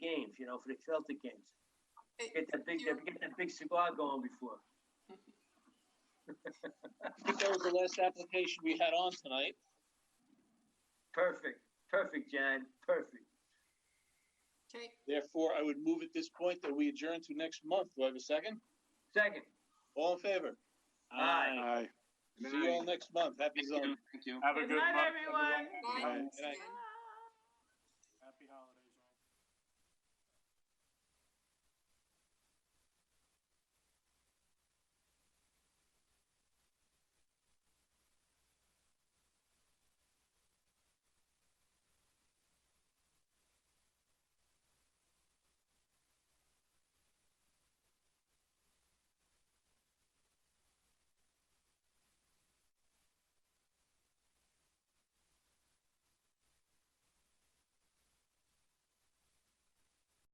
know, for the Celtic games. It- Get that big, you- get that big cigar going before. I think that was the last application we had on tonight. Perfect, perfect, Jan, perfect. Okay, Therefore, I would move at this point that we adjourn to next month. Do I have a second? Second, All in favor? Aye. Aye. See you all next month. Happy zoning. Thank you. Have a Good good night, month. everyone. bye. Aye. Good night. Stan.